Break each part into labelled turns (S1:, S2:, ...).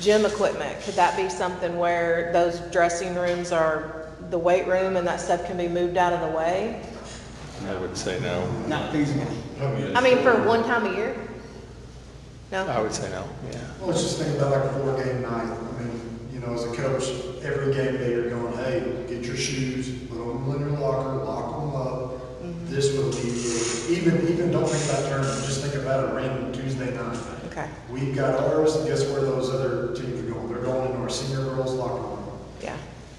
S1: gym equipment, could that be something where those dressing rooms are the weight room and that stuff can be moved out of the way?
S2: I would say no.
S3: Not feasible.
S1: I mean, for one time a year? No?
S2: I would say no, yeah.
S4: Well, Let's just think about like a four game night. I mean, you know, as a coach, every game day you're going, hey, get your shoes, put them in your locker, lock them up. This will be, even, even don't think about tournament, just think about a random Tuesday night.
S1: Okay,
S4: We've got ours, and guess where those other teams are going? They're going into our senior girls locker room.
S1: yeah.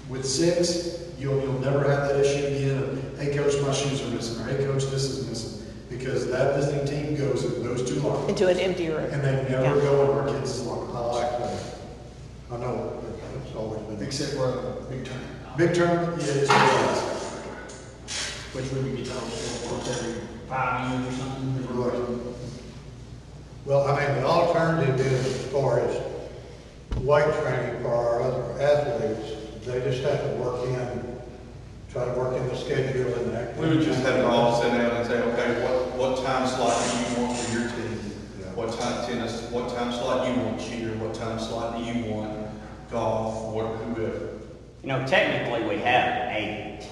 S4: With six, you'll, you'll never have that issue again of, hey, coach, my shoes are missing, or hey, coach, this is missing. Because that visiting team goes in those two lockers.
S1: Into an empty room.
S4: And they never
S1: Yeah.
S4: go in our kids' locker.
S5: I like that. I know, but it's always been, except for the big time,
S4: Big tournament, yeah, it's realized.
S5: which would be told for once every.
S3: Five years or something.
S5: Right. Well, I mean, the alternative is as far as weight training for our other athletes, they just have to work in, try to work in the schedule and that.
S6: We would just have to all sit down and say, okay, what, what time slot do you want for your team? What time tennis, what time slot do you want cheer, what time slot do you want golf, what, whoever.
S7: You know, technically, we have eight,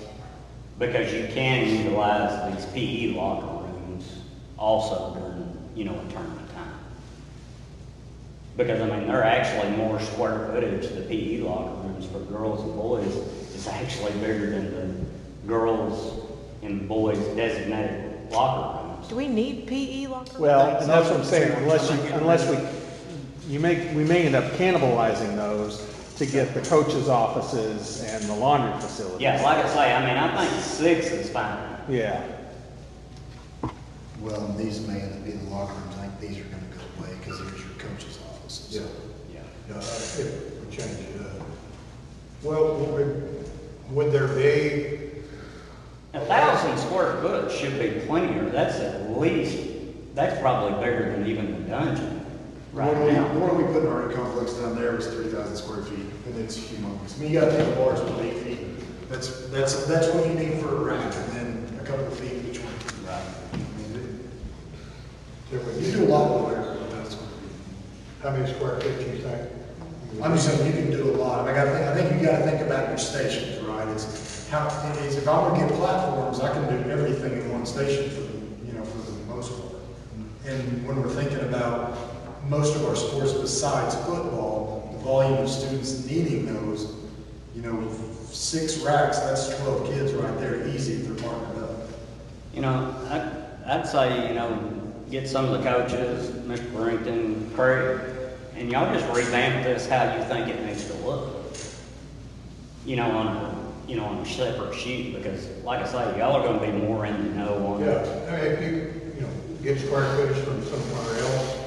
S7: because you can utilize these PE locker rooms also during, you know, a tournament time. Because, I mean, they're actually more square footage, the PE locker rooms for girls and boys is actually bigger than the girls and boys designated locker rooms.
S1: Do we need E PE locker? rooms?
S2: Well, and that's what I'm saying, unless you, unless we, you may, we may end up cannibalizing those to get the coaches' offices and the laundry facilities.
S7: Yeah, like I say, I mean, I think six is fine.
S2: Yeah,
S5: Well, and these may end up being the locker rooms, I think these are gonna go away, because there's your coach's offices. Yeah.
S7: Yeah.
S4: uh,
S5: Yeah, if we change it up. Well, would, would there be,
S7: A thousand square foot should be plenty, or that's at least, that's probably bigger than even the dungeon right
S4: What do we,
S7: now.
S4: what do we put in our complex down there is three thousand square feet, and it's humongous. I mean, you gotta take a large one eight feet. That's, that's, that's what you need for a rack, and then a couple of feet each one. I mean,
S5: there would
S4: it-
S5: be?
S4: You do a lot of work with that square feet.
S5: How many square feet do you think?
S4: I'm just saying, you can do a lot. I mean, I think, I think you gotta think about your stations, right? It's how, it is, if I were to get platforms, I can do everything in one station for, the you know, for the most part. And when we're thinking about most of our sports besides football, the volume of students needing those, you know, with six racks, that's twelve kids right there, easy if they're marked up.
S7: You know, I, I'd say, you know, get some of the coaches, Mr. Brington, Craig, and y'all just revamp this how you think it needs to look. You know, on a, you know, on a separate sheet, because like I say, y'all are gonna be more in the know on
S5: Yeah, I mean, if you, you know, get square footage from somewhere else,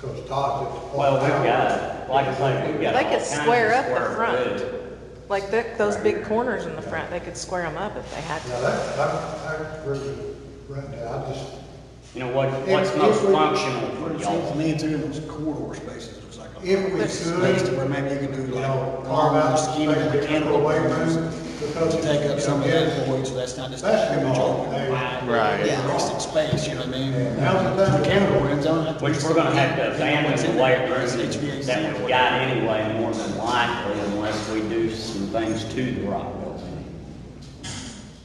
S5: because Todd's at the.
S7: Well, we've got, like I say, we've got all
S1: They could
S7: kinds of
S1: square up the
S7: square footage.
S1: front. Like the, those big corners in the front, they could square them up if they had
S5: Now,
S1: to.
S5: that, I, I agree with Brenda, I just,
S7: You know, what,
S5: If-
S7: what's most
S5: if we-
S7: functional for
S3: Seems to
S7: y'all?
S3: me it's in those corridor spaces, looks like. a-
S5: if we could.
S3: Space to where maybe you can do
S5: you know,
S3: like.
S5: carve out
S3: scheme of
S5: space to get
S3: mechanical
S5: away
S3: rooms.
S5: from, because.
S3: To take up some of the void, so that's not just.
S5: Basketball, they-
S4: uh,
S2: Right.
S3: Yeah, wasted space, you know what I mean?
S5: Now's the time.
S3: Mechanical rooms, I don't have to.
S7: Which we're gonna have to abandon the weight
S3: It's
S7: room
S3: HVAC.
S7: that we've got anyway, more than likely, unless we do some things to the rock building.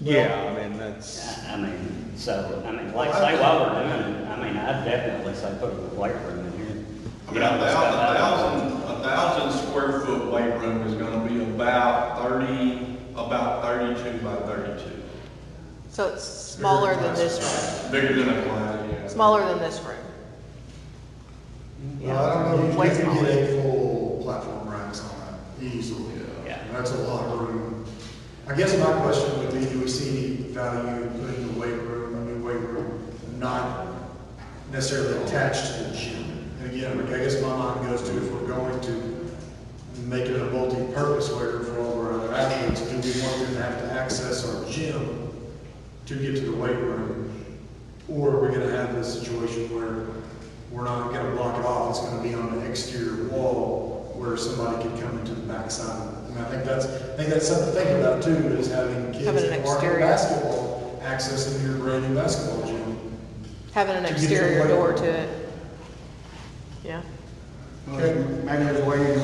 S2: yeah, I mean, that's,
S7: I I mean, so, I mean, like, say while we're doing it, I mean, I'd definitely say put a weight room in here.
S6: I
S7: You
S6: mean,
S7: know,
S6: a
S7: it's got
S6: thousand, a
S7: that-
S6: thousand, a thousand square foot weight room is gonna be about thirty, about thirty-two by thirty-two.
S1: So it's smaller than this room,
S6: Bigger than a class, yeah.
S1: smaller than this room.
S5: Well, I don't know if you
S1: Way
S5: can
S4: You
S1: smaller.
S4: get eight full platform racks on that easily.
S7: Yeah.
S4: And That's a lot of room. I guess my question would be, do we see value in putting the weight room, a new weight room, not necessarily attached to the gym? And again, I guess my mind goes to if we're going to make it a multi-purpose weight room for all of our other athletes, do we want them to have to access our gym to get to the weight room? Or are we gonna have this situation where we're not gonna block it off, it's gonna be on an exterior wall where somebody could come into the backside of it? And I think that's, I think that's something to think about too, is having kids
S1: Having an
S4: that aren't in
S1: exterior.
S4: basketball accessing your brand new basketball gym.
S1: Having an
S4: To get the
S1: exterior
S4: weight
S1: door
S4: room.
S1: to it. Yeah.
S3: Maybe there's a way you can